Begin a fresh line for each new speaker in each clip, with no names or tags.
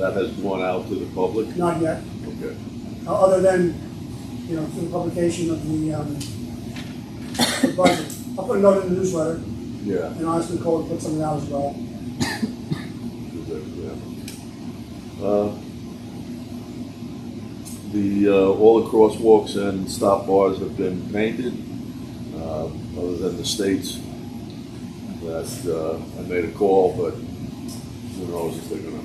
That has gone out to the public?
Not yet,
Okay.
o- other than, you know, through the publication of the, um, the budget. I'll put a note in the newsletter,
Yeah.
and honestly, Cole put something out as well.
is that correct? Uh, The, uh, all the crosswalks and stop bars have been painted, uh, other than the states. That, uh, I made a call, but who knows if they're gonna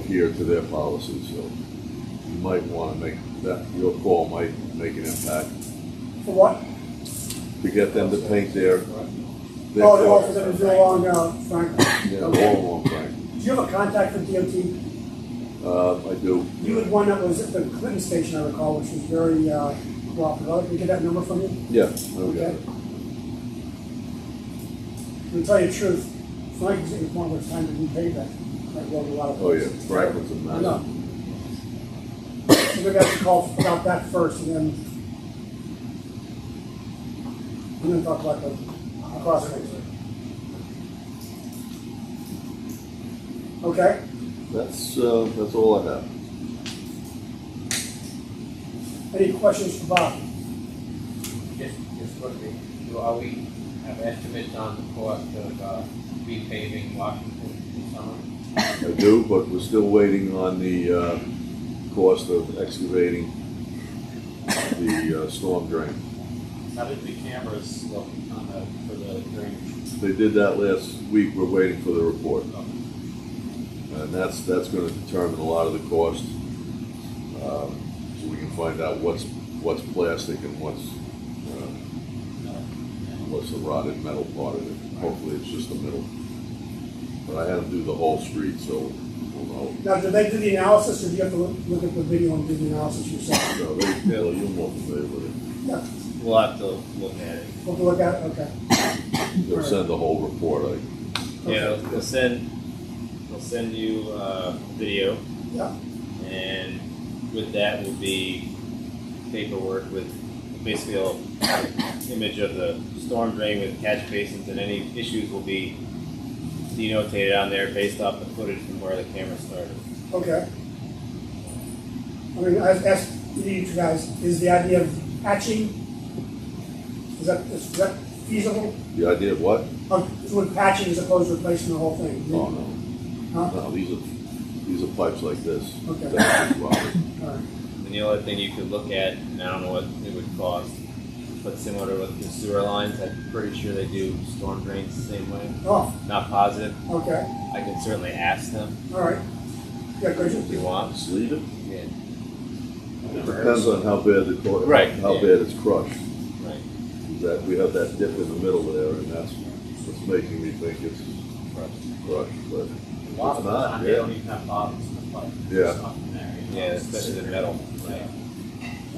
adhere to their policies, so you might wanna make, that, your call might make an impact
For what?
to get them to paint their. their
Oh, the
cars.
office that was there long ago, Frank.
Yeah, long, long time.
Do you have a contact for DOT?
Uh, I do.
You had one that was at the Clinton station, I recall, which was very, uh, cooperative. Can we get that number from you?
oh, Yeah, I'll get it.
To tell you the truth, Frank was at the point where it's time to repay that. Frank wrote a lot of.
Oh, yeah, Franklin's a
I
mess.
know. So we got to call about that first and then. I'm gonna talk about the the crosswalks. Okay,
That's, uh, that's all I have.
any questions for Bob?
Just, just quickly, do, are we, have estimates on the cost of, uh, repaving Washington this summer?
I do, but we're still waiting on the, uh, cost of excavating the uh, storm drain.
How did the cameras look on the, for the drainage?
They did that last week, we're waiting for the report. And that's, that's gonna determine a lot of the cost. Um, So we can find out what's, what's plastic and what's, uh, what's the rotted metal part of it. Hopefully it's just the middle. But I had to do the whole street, so we'll know.
Now, did they do the analysis or do you have to look look at the video and do the analysis yourself?
No, they, Bill, you're more familiar with
Yeah,
We'll have to look at it.
we'll look at, it, okay.
it. They'll send the whole report,
Yeah, we'll send, we'll send you, uh, video.
Yeah.
And with that will be paperwork with basically a image of the storm drain with catch basins and any issues will be denotated on there based off the footage from where the camera started.
Okay. I mean, I asked you guys, is the idea of patching, is that, is that feasible?
the idea of what?
Of doing Oh, patching as opposed to replacing the whole thing?
Oh, no,
Huh?
no, these are, these are pipes like this.
Okay.
That's what's wrong.
Alright.
And the only thing you could look at, and I don't know what it would cost, but similar to with the sewer lines, I'm pretty sure they do storm drains the same way.
Oh,
Not positive.
okay,
I can certainly ask them
alright. Yeah, good.
if you want.
Just leave it.
Yeah.
Depends on how bad the, cor-
Right,
how
yeah.
bad it's crushed.
Right.
That, we have that dip in the middle there, and that's what's making me think it's crushed, but
A lot of the
Not
time, they
yet.
don't even have bottoms in the pipe.
Yeah.
There's nothing there, you know,
Yeah,
it's
especially the
just-
metal.
Yeah.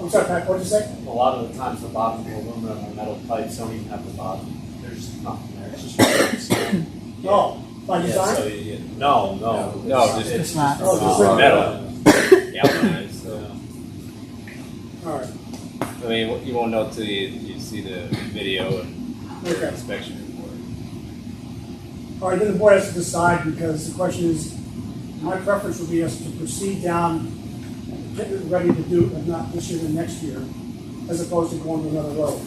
I'm sorry, Pat, what'd you say?
A lot of the times, the bottom of aluminum or metal pipes don't even have the bottom. There's nothing there. It's just.
Oh, by
Yeah, so
design?
you get Oh,
No, no.
No,
it's-
just-
It's
not.
Oh, just
uh,
like-
metal.
galvanized, so.
Alright,
uh, I mean, you- you won't know till you, you see the video and
okay.
inspection report.
All right, then the board has to decide, because the question is, my preference would be us to proceed down, get it ready to do, if not this year, then next year, as opposed to going to another road.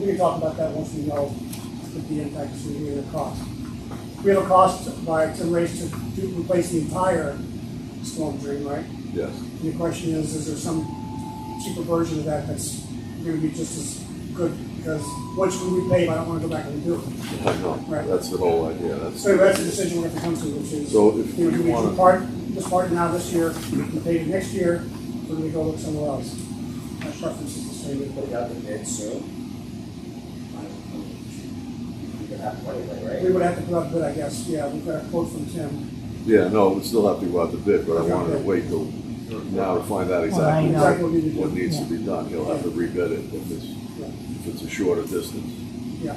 We can talk about that once we know what the impact is going to be and the cost. We have a cost by, to raise, to do- replace the entire storm drain, right?
yes,
And the question is, is there some cheaper version of that that's gonna be just as good? Because once we repay, I don't wanna go back and do it.
I know,
Right.
that's the whole idea, that's.
So that's the decision we have to come to, which is,
So if
you know, do
you
we
wanna-
do part, this part now this year, and pay it next year, or do we go look somewhere else? My preference is the same.
put it out the bid soon. You could have one anyway,
We
right?
would have to put up a bid, I guess, yeah, we've got a quote from Tim.
Yeah, no, we still have to go out to bid, but I
Okay.
wanted to wait till now to find out
Well, I
exactly
know.
what-
Exactly what we need to
what
do.
needs to be done. He'll have to rebid it if it's,
Yeah.
if it's a shorter distance.
Yeah,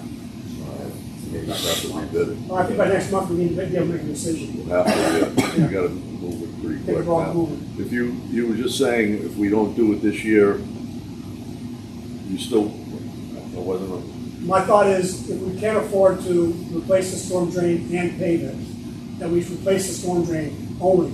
He'll have to rebid it.
well, I think by next month, we need to be able to make a decision.
We'll have to, yeah, you gotta move it pretty
Get the
quick
ball
now.
moving.
If you, you were just saying, if we don't do it this year, you still, I wasn't, on-
My thought is, if we can't afford to replace the storm drain and pave it, then we should replace the storm drain only.